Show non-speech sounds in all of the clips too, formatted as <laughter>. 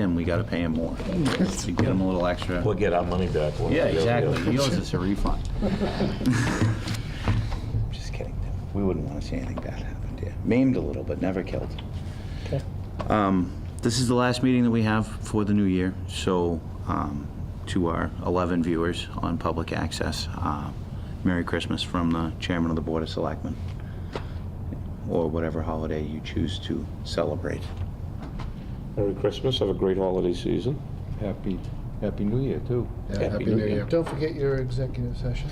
him, we gotta pay him more. To get him a little extra. We'll get our money back. We'll- Yeah, we'll- exactly. we'll- He owes us a refund. <laughs> Just kidding. We wouldn't want to see anything bad happen, yeah. Maimed a little, but never killed. Um, This is the last meeting that we have for the new year, so um, to our 11 viewers on public access, uh, Merry Christmas from the Chairman of the Board of Selectmen, or whatever holiday you choose to celebrate. Merry Christmas, have a great holiday season. Happy, happy New Year, too. Yeah, Happy New Year. Don't forget your executive session.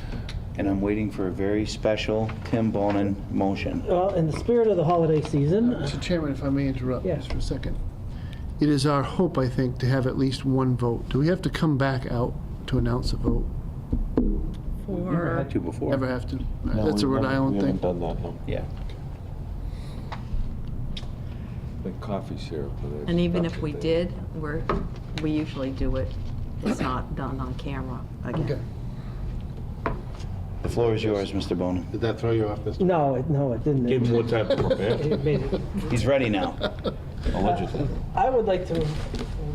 And I'm waiting for a very special Tim Bonin motion. Well, in the spirit of the holiday season, Mr. Chairman, if I may interrupt Yeah. just for a second. It is our hope, I think, to have at least one vote. Do we have to come back out to announce a vote? Never for, had to before. Ever have to? No, That's a we Rhode haven't- Island We haven't thing. done that, no. Yeah. Like coffee syrup. with it. and even if we did, we're, we usually do it, it's not done on camera Okay. again. The floor is yours, Mr. Bonin. Did that throw you off this? no, it- no, it didn't. Give him more time <laughs> to prepare, It made it- He's ready <laughs> now. allegedly. I would like to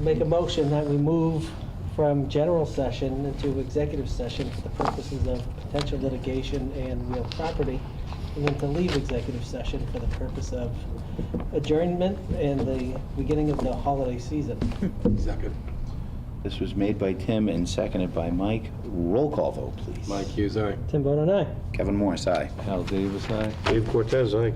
make a motion that we move from general session into executive session for the purposes of potential litigation and real property, and then to leave executive session for the purpose of adjournment and the beginning of the holiday season. Second. This was made by Tim and seconded by Mike. Roll call vote, please. Mike Hughes, aye. Tim Bone and I. Kevin Morris, aye. Hal Davis, aye. Dave Cortez, aye.